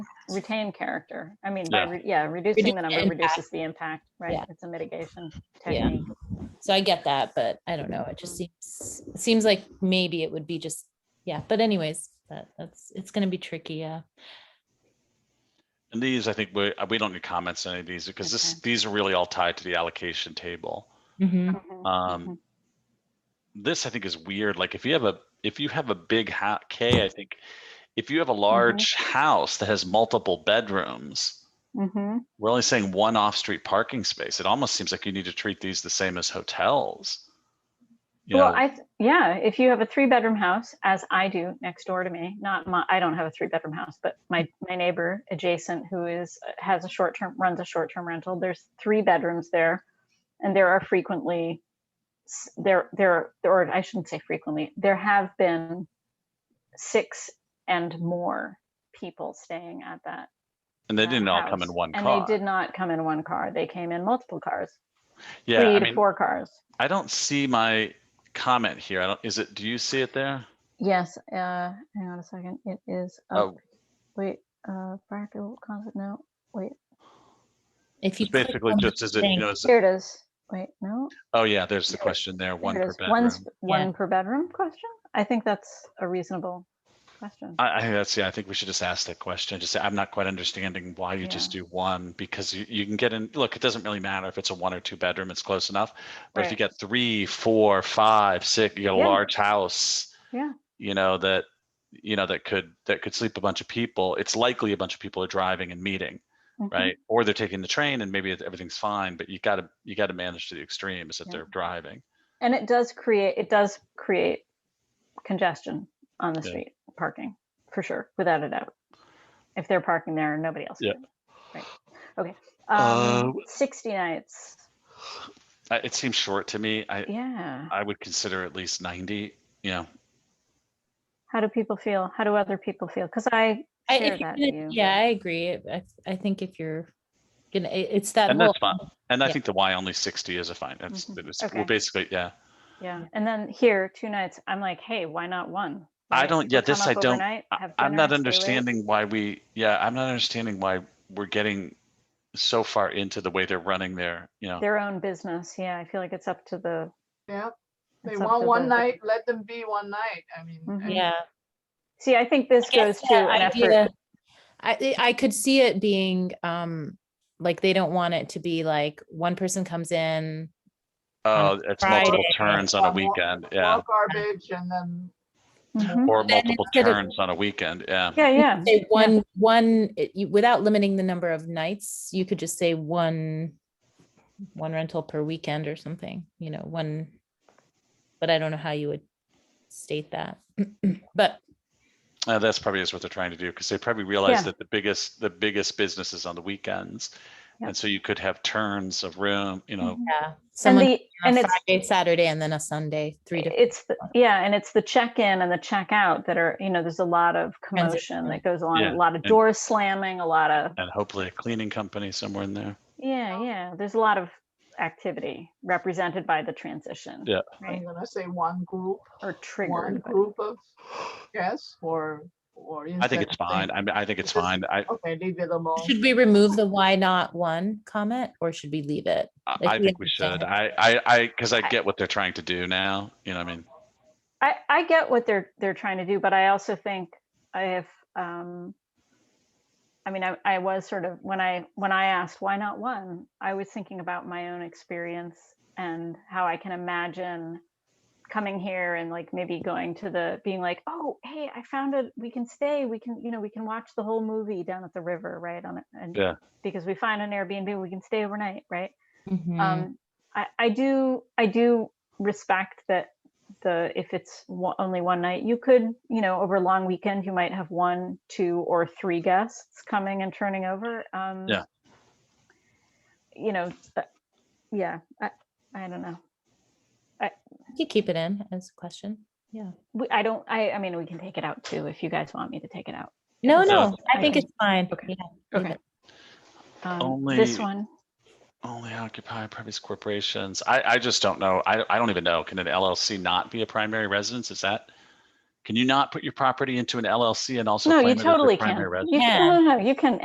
retain character. I mean, by, Yeah. re- yeah, reducing Reduce the the number impact. reduces the impact, right? Yeah. It's a mitigation Yeah. technique. So I get that, but I don't know. It just seems it seems like maybe it would be just yeah. But anyways, that that's it's gonna be tricky. Yeah. And these, I think we, uh, we don't need comments on any of these because this, Okay. these are really all tied to the allocation table. Mhm. Mhm, Um, this I think is weird. Like if you have a, if you have a big ha- K, I think, if you have Mm-hmm. a large house that has multiple bedrooms, mhm. we're only saying one off-street parking space. It almost seems like you need to treat these the same as hotels. You Well, know, I, th- yeah, if you have a three bedroom house, as I do next door to me, not my, I don't have a three bedroom house, but my, my neighbor adjacent who is, has a short term, runs a short term rental, there's three bedrooms there. And there are frequently, s- there, there, or I shouldn't say frequently, there have been six and more people staying at that and they uh, didn't all come in house, one and car. they did not come in one car. They came in multiple cars, Yeah, three I to mean, four cars. I don't see my comment here. I don't, is it, do you see it there? Yes. Uh, hang on a second. It is. Up. Oh. Wait. Uh, practical concept. No. Wait. If you It's click basically on the just, is it, you thing- know, is it- Here it is. Wait. No. oh yeah, there's the question there, one here it per is. One, bedroom. sp- one per bedroom question. I think that's a reasonable question. I, I think that's yeah. I think we should just ask that question. Just say, I'm not quite understanding why you just do one because you, you can get in. Look, it doesn't really matter if it's a one or two bedroom; it's close enough. But if you Right. get three, four, five, six, you got a Yeah. large house. Yeah. You know that you know that could that could sleep a bunch of people. It's likely a bunch of people are driving and meeting, Mhm. right? Or they're taking the train and maybe everything's fine. But you gotta you gotta manage to the extremes that Yeah. they're driving. And it does create. It does create congestion on the Yeah. street parking for sure, without a doubt. If they're parking there and nobody else. Yeah. can. Right. Okay. Um, Sixty nights. Uh, It seems short to me. I Yeah. I would consider at least 90. You know, How do people feel? How do other people feel? Because I I, share if you're that gonna- view. yeah, I agree. It- I, I think if you're gonna, it- it's that And whole that's fine. And I Yeah. think the Y only sixty is a fine. That's Mhm. it was Okay. well, basically yeah. Yeah, and then here, two nights, I'm like, hey, why not one? I Right? don't- yeah, We'll come this I up don't- overnight, I- have I'm dinner, not stay late. understanding why we yeah I'm not understanding why we're getting so far into the way they're running their you know Their own business, yeah, I feel like it's up to the, Yeah, they it's up want to one the- night, let them be one night. I mean, Mhm. I mean, yeah. see, I think this guess goes to that an idea- effort. I I- I could see it being um like they don't want it to be like one person comes in. oh it's multiple Friday, turns on a or more- weekend yeah more Garbage and then Mhm. or Then multiple instead of- turns on a weekend yeah Yeah, yeah, Say one one it- you- without limiting the number of nights, you could just say one one rental per weekend or something, you know, one. But I don't know how you would state that. But Uh, that's probably is what they're trying to do because they probably realize Yeah. that the biggest the biggest business is on the weekends Yep. and so you could have turns of room you know Mhm. yeah, and someone the, and on it's, Friday, Saturday, and then a Sunday, three to it's, the- yeah, and it's the check-in and the check-out that are, you know, there's a lot of commotion that goes along, Yeah, a lot of doors slamming, a lot of, and hopefully a cleaning company somewhere in there yeah, yeah, there's a lot of activity represented by the transition. Yeah. Right, I'm gonna say one group, or one triggered, by- group of guests or, or. I think instead it's saying, fine I mean I think it's Because- fine I Okay, leave it alone. Should we remove the why not one comment or should we leave it? I Like, I we think we should. I, I, I, because I get what they're trying to do now. You know, what I mean, I, I get what they're they're trying to do, but I also think I have um I mean I, I was sort of when I when I asked why not one, I was thinking about my own experience and how I can imagine coming here and like maybe going to the being like, oh hey, I found it we can stay, we can, you know, we can watch the whole movie down at the river, right? On it and Yeah. because we find an Airbnb, we can stay overnight, right? Mhm. Mm-hmm. um, I, I do I do respect that the if it's one, only one night you could you know over a long weekend you might have one two or three guests coming and turning over um Yeah. you know uh, yeah i i don't know You could keep it in as a question. Yeah. we, i don't i i mean we can take it out too if you guys want me to take it out No, it's no, up. I think it's fine. Okay. Yeah, leave Okay. it. um, this Only- one only occupy private corporations. I, I just don't know. I, I don't even know. Can an LLC not be a primary residence? Is that? Can you not put your property into an LLC and also? no claim you it as your totally can primary residence? you Yeah. can no, no, no, you can